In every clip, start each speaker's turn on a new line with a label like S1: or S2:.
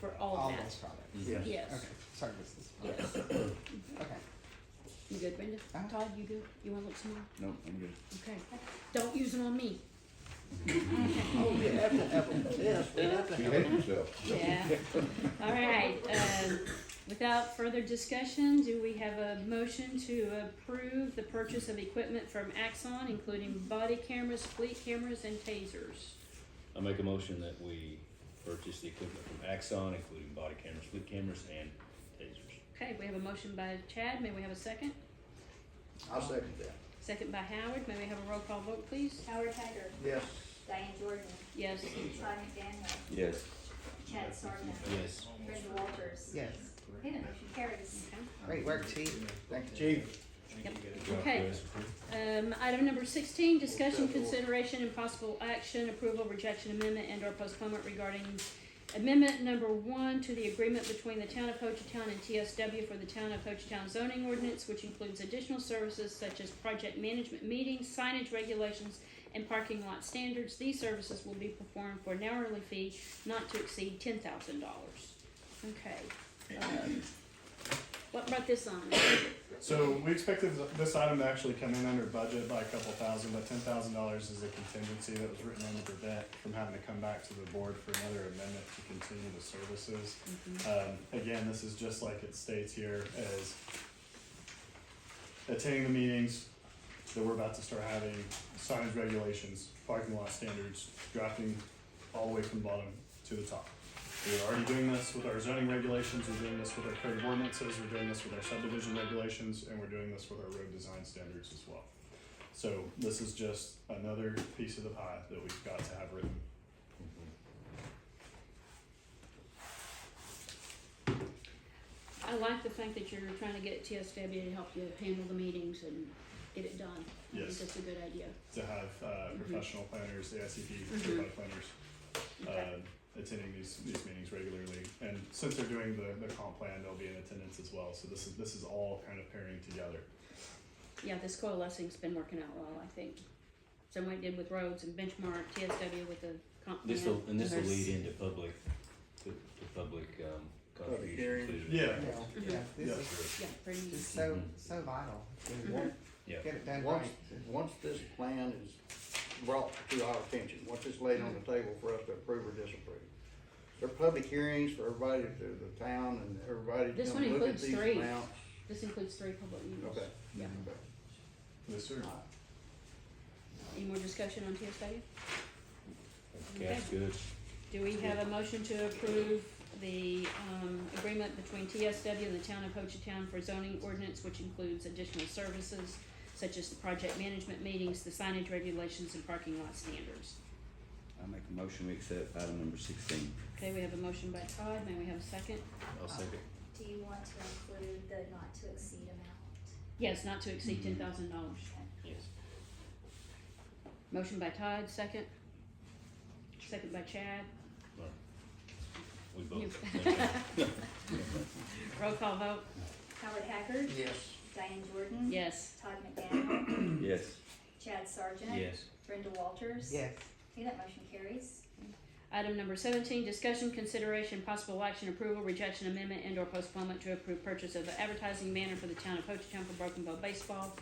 S1: for all
S2: all
S1: match.
S2: those products?
S3: Yes.
S1: Yes,
S2: Okay, sorry, this is,
S1: yes.
S2: okay.
S1: You good, Brenda?
S2: Uh-huh.
S1: Todd, you good? You wanna look some more?
S3: No, I'm good.
S1: Okay. Don't use them on me.
S4: Oh, you have to have a test, you have to
S5: She
S4: have a
S5: hates herself.
S1: Yeah. All right, um, without further discussion, do we have a motion to approve the purchase of equipment from Axon, including body cameras, fleet cameras, and tasers?
S6: I make a motion that we purchase the equipment from Axon, including body cameras, fleet cameras, and tasers.
S1: Okay, we have a motion by Chad, may we have a second?
S4: I'll second that.
S1: Second by Howard, may we have a roll call vote, please?
S7: Howard Hager,
S4: Yes,
S7: Diane Jordan,
S1: Yes,
S7: Todd McDaniel,
S3: Yes.
S7: Chad Sargent,
S6: Yes.
S7: Brenda Walters.
S2: Yes,
S7: Okay, the motion carries.
S1: okay.
S2: great work, chief, thank you.
S4: chief,
S1: Okay. Um, item number sixteen, discussion, consideration, and possible action, approval, rejection, amendment, and or postponement regarding amendment number one to the agreement between the town of Hochatown and TSW for the town of Hochatown zoning ordinance, which includes additional services such as project management meetings, signage regulations, and parking lot standards. These services will be performed for an hourly fee not to exceed ten thousand dollars. Okay. um, What brought this on?
S8: So we expected this item to actually come in under budget by a couple thousand, but ten thousand dollars is a contingency that was written into the debt from having to come back to the board for another amendment to continue the services. Um, again, this is just like it states here as attending the meetings that we're about to start having, signage regulations, parking lot standards, drafting all the way from the bottom to the top. We're already doing this with our zoning regulations, we're doing this with our code of ordinances, we're doing this with our subdivision regulations, and we're doing this with our road design standards as well. So this is just another piece of the pie that we've got to have written.
S1: I like the fact that you're trying to get TSW to help you handle the meetings and get it done. I think
S8: Yes.
S1: that's a good idea.
S8: to have uh, professional planners, the ICP certified planners,
S1: Okay.
S8: uh, attending these, these meetings regularly. And since they're doing the, the comp plan, they'll be in attendance as well. So this is this is all kind of pairing together.
S1: Yeah, this coalescing's been working out well, I think. Someone did with roads and benchmark TSW with the comp plan.
S6: This will, and this will
S1: There's-
S6: lead into public, to, to public, um,
S4: hearing.
S6: contributions.
S8: Yeah.
S2: Yeah, yeah, this is,
S1: Yeah, pretty
S2: this is
S1: easy.
S2: so, so vital,
S4: once,
S6: Yeah.
S2: get it done
S4: once,
S2: right.
S4: once this plan is brought to our attention, once it's laid on the table for us to approve or disapprove. There are public hearings for everybody to the town and everybody to
S1: This
S4: come
S1: one
S4: look at
S1: includes
S4: these
S1: three.
S4: amounts.
S1: This includes three public meetings.
S4: Okay.
S1: Yeah.
S4: Okay.
S8: Yes, sir.
S1: Any more discussion on TSW?
S6: Cash goods.
S1: Do we have a motion to approve the, um, agreement between TSW and the town of Hochatown for zoning ordinance, which includes additional services such as the project management meetings, the signage regulations, and parking lot standards?
S3: I make a motion we accept item number sixteen.
S1: Okay, we have a motion by Todd, may we have a second?
S6: I'll second.
S7: Do you want to include the not to exceed amount?
S1: Yes, not to exceed ten thousand dollars.
S6: Yes.
S1: Motion by Todd, second? Second by Chad?
S6: We
S1: You-
S6: both.
S1: Roll call vote,
S7: Howard Hager,
S4: Yes,
S7: Diane Jordan,
S1: yes.
S7: Todd McDaniel,
S3: Yes.
S7: Chad Sargent.
S6: Yes.
S7: Brenda Walters.
S2: Yes,
S7: Okay, that motion carries.
S1: Item number seventeen, discussion, consideration, possible action, approval, rejection, amendment, and or postponement to approve purchase of the advertising banner for the town of Hochatown for Broken Bow Baseball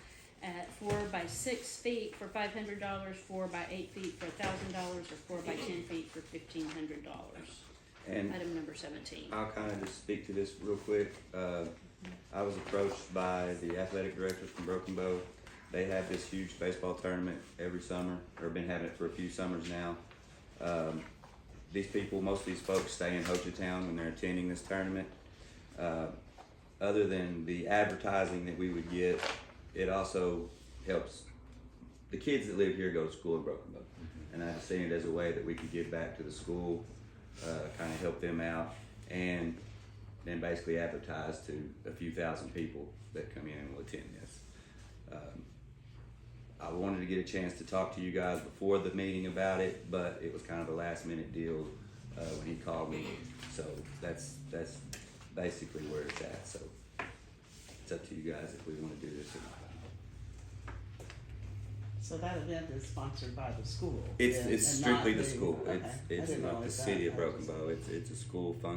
S1: at four by six feet for five hundred dollars, four by eight feet for thousand dollars, or four by ten feet for fifteen hundred dollars.
S3: And
S1: Item number seventeen.
S3: I'll kind of just speak to this real quick. Uh, I was approached by the athletic directors from Broken Bow. They have this huge baseball tournament every summer, or been having it for a few summers now. Um, these people, most of these folks, stay in Hochatown when they're attending this tournament. Uh, other than the advertising that we would get, it also helps the kids that live here go to school in Broken Bow. And I've seen it as a way that we could give back to the school, uh, kind of help them out, and then basically advertise to a few thousand people that come in and will attend this. Um, I wanted to get a chance to talk to you guys before the meeting about it, but it was kind of a last minute deal uh, when he called me. So that's that's basically where it's at. So it's up to you guys if we want to do this or not.
S9: So that event is sponsored by the school?
S3: It's,
S9: then,
S3: it's
S9: and not
S3: strictly the school.
S9: okay.
S3: It's,
S9: I
S3: it's
S9: didn't
S3: not the
S9: realize
S3: city
S9: that.
S3: of
S9: I was-
S3: Broken Bow. It's, it's a school function.